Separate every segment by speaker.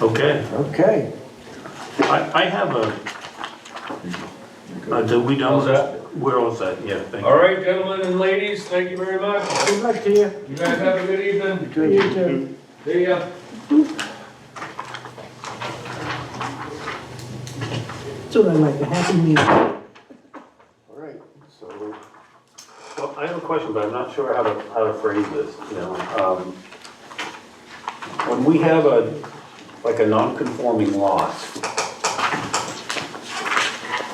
Speaker 1: Okay,
Speaker 2: Okay.
Speaker 1: I, I have a, uh, did we done with that? We're all set, yeah, thank you.
Speaker 3: All right, gentlemen and ladies, thank you very much.
Speaker 2: Good luck to you.
Speaker 3: You guys have a good evening.
Speaker 2: To you too.
Speaker 3: See ya.
Speaker 4: That's what I like, a happy meal.
Speaker 2: All right, so,
Speaker 1: Well, I have a question, but I'm not sure how to, how to phrase this, you know, um, when we have a, like a non-conforming lot,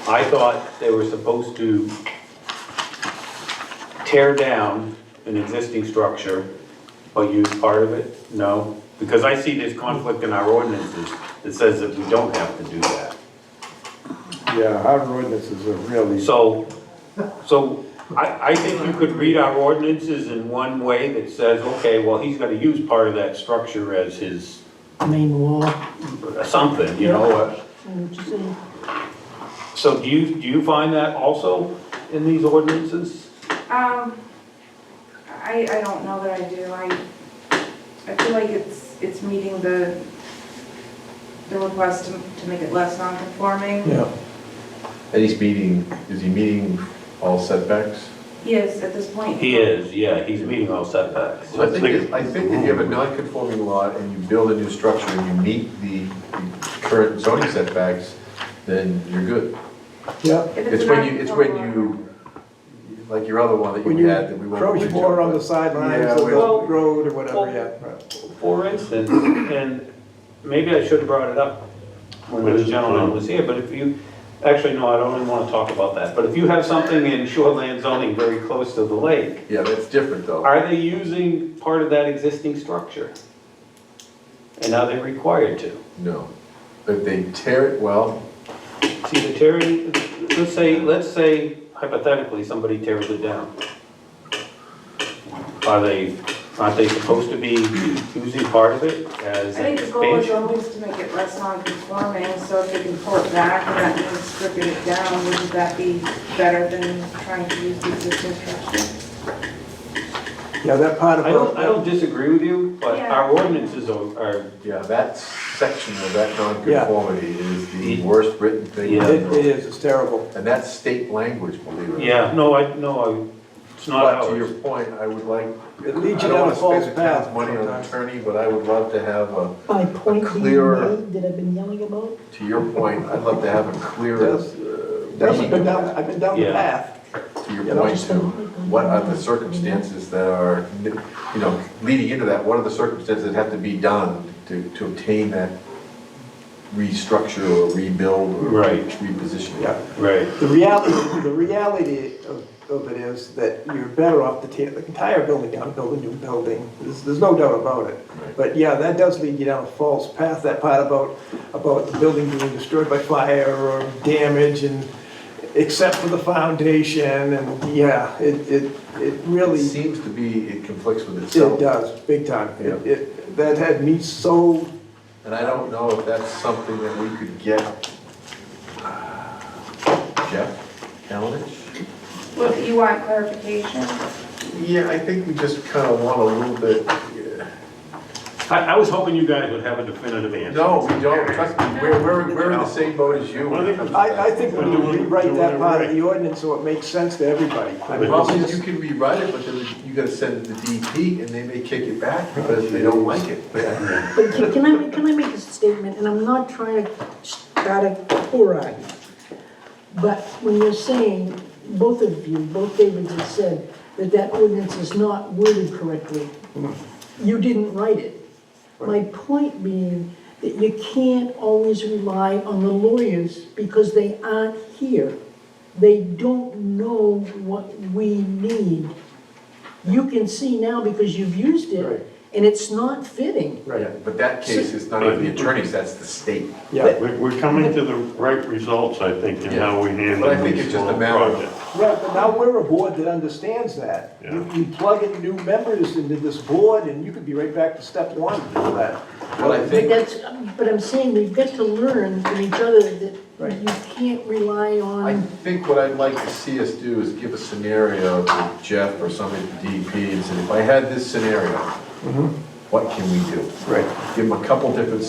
Speaker 1: I thought they were supposed to tear down an existing structure, but use part of it, no? Because I see this conflict in our ordinances that says that we don't have to do that.
Speaker 2: yeah, our ordinances are really,
Speaker 1: So, so I, I think you could read our ordinances in one way that says, okay, well, he's gonna use part of that structure as his
Speaker 4: Main wall,
Speaker 1: something, you know? uh,
Speaker 4: and what you say.
Speaker 1: So do you, do you find that also in these ordinances?
Speaker 5: Um, I, I don't know that I do, I, I feel like it's, it's meeting the, the request to, to make it less non-conforming.
Speaker 2: yeah,
Speaker 6: And he's meeting, is he meeting all setbacks?
Speaker 5: Yes, at this point.
Speaker 1: He is, yeah, he's meeting all setbacks.
Speaker 6: I think, if- I think if you have a non-conforming lot and you build a new structure and you meet the current zoning setbacks, then you're good.
Speaker 2: yeah.
Speaker 5: If
Speaker 6: It's
Speaker 5: a
Speaker 6: when you, it's when
Speaker 5: non-conforming
Speaker 6: you, like your other one that
Speaker 2: When
Speaker 6: you
Speaker 2: you
Speaker 6: had that we won't.
Speaker 2: approach
Speaker 6: reach
Speaker 2: more
Speaker 6: out,
Speaker 2: on the
Speaker 6: but-
Speaker 2: sidelines
Speaker 6: Yeah,
Speaker 2: of the
Speaker 6: well-
Speaker 1: well-
Speaker 2: road or whatever,
Speaker 1: well-
Speaker 2: yeah. right.
Speaker 1: For instance, and maybe I should have brought it up when this gentleman was here, but if you, actually, no, I don't even wanna talk about that. But if you have something in shoreland zoning very close to the lake,
Speaker 6: Yeah, that's different though.
Speaker 1: Are they using part of that existing structure? And are they required to?
Speaker 6: No. If they tear it, well,
Speaker 1: See, the tearing, let's say, let's say hypothetically, somebody tears it down. Are they, aren't they supposed to be using part of it as
Speaker 5: I
Speaker 1: an
Speaker 5: think the goal is
Speaker 1: expansion?
Speaker 5: always to make it less non-conforming, so if we can pull it back and that means stripping it down, wouldn't that be better than trying to use the existing structure?
Speaker 2: Yeah, that part of.
Speaker 1: I don't, I don't disagree with you, but
Speaker 5: Yeah.
Speaker 1: our ordinances are, are,
Speaker 6: yeah, that section of that non-conformity is the worst written thing. in
Speaker 1: Yeah.
Speaker 6: the
Speaker 2: It it
Speaker 6: world.
Speaker 2: is, it's terrible.
Speaker 6: And that's state language, believe it or not.
Speaker 1: yeah, no, I, no, I, it's not
Speaker 6: But to your
Speaker 1: ours.
Speaker 6: point, I would like,
Speaker 2: It
Speaker 6: I
Speaker 2: leads you
Speaker 6: don't
Speaker 2: down
Speaker 6: want
Speaker 2: a
Speaker 6: to
Speaker 2: false
Speaker 6: spend the
Speaker 2: path
Speaker 6: town's money on an
Speaker 2: sometimes.
Speaker 6: attorney, but I would love to have a,
Speaker 4: My point being
Speaker 6: clearer-
Speaker 4: made that I've been yelling about,
Speaker 6: to your point, I'd love to have a clearer
Speaker 2: Yes. I've
Speaker 6: reading
Speaker 2: been
Speaker 6: of
Speaker 2: down,
Speaker 6: that,
Speaker 2: I've been down the
Speaker 1: Yeah.
Speaker 2: path.
Speaker 6: to your
Speaker 2: you know,
Speaker 6: point
Speaker 4: just
Speaker 6: to,
Speaker 4: the-
Speaker 6: what are the circumstances that are, you know, leading into that, what are the circumstances that have to be done to, to obtain that restructure or rebuild or
Speaker 1: Right.
Speaker 6: repositioning?
Speaker 2: Yeah.
Speaker 1: Right,
Speaker 2: The reality, the reality of, of it is that you're better off to tear the entire building down, build a new building. There's, there's no doubt about it.
Speaker 6: Right.
Speaker 2: But yeah, that does lead you down a false path, that part about, about the building being destroyed by fire or damage and except for the foundation and yeah, it, it, it
Speaker 6: It
Speaker 2: really, it
Speaker 6: seems to be, it conflicts with itself.
Speaker 2: does, big time. It,
Speaker 6: Yeah.
Speaker 2: it, that had me so,
Speaker 6: And I don't know if that's something that we could get uh, Jeff Kalinich?
Speaker 5: Well, you want clarification?
Speaker 6: Yeah, I think we just kind of want a little bit, yeah.
Speaker 1: I, I was hoping you guys would have a definitive answer.
Speaker 6: no, we don't, trust me, we're, we're, we're in the same boat as you. when it comes to that.
Speaker 2: I, I think when you rewrite that part of the ordinance so it makes sense to everybody. I mean,
Speaker 6: Well,
Speaker 2: it's
Speaker 6: you
Speaker 2: just-
Speaker 6: can rewrite it, but then you gotta send it to DEP and they may kick it back because they don't like it.
Speaker 4: but can can I, can I make a statement, and I'm not trying to start a poor argument. But when you're saying, both of you, both Davids have said, that that ordinance is not worded correctly, you didn't write it. My point being that you can't always rely on the lawyers because they aren't here. They don't know what we need. You can see now because you've used
Speaker 2: Right.
Speaker 4: it, and it's not fitting.
Speaker 6: Right. But that case is not even the attorneys, that's the state.
Speaker 2: Yeah.
Speaker 7: We're we're coming to the right results, I think, in how we handle
Speaker 6: But I think
Speaker 7: these
Speaker 6: it's just a
Speaker 7: small
Speaker 6: matter of-
Speaker 7: projects.
Speaker 2: Right, but now we're a board that understands that. You you plug in new members into this board, and you could be right back to step one for that.
Speaker 6: But I
Speaker 4: But
Speaker 6: think,
Speaker 4: that's, but I'm saying we've got to learn from each other that
Speaker 2: Right.
Speaker 4: you can't rely
Speaker 6: I
Speaker 4: on,
Speaker 6: think what I'd like to see us do is give a scenario to Jeff or somebody E at DEP
Speaker 2: Mm-hmm.
Speaker 6: and say, if I had this scenario, what can we do?
Speaker 2: Right.
Speaker 6: Give them a couple different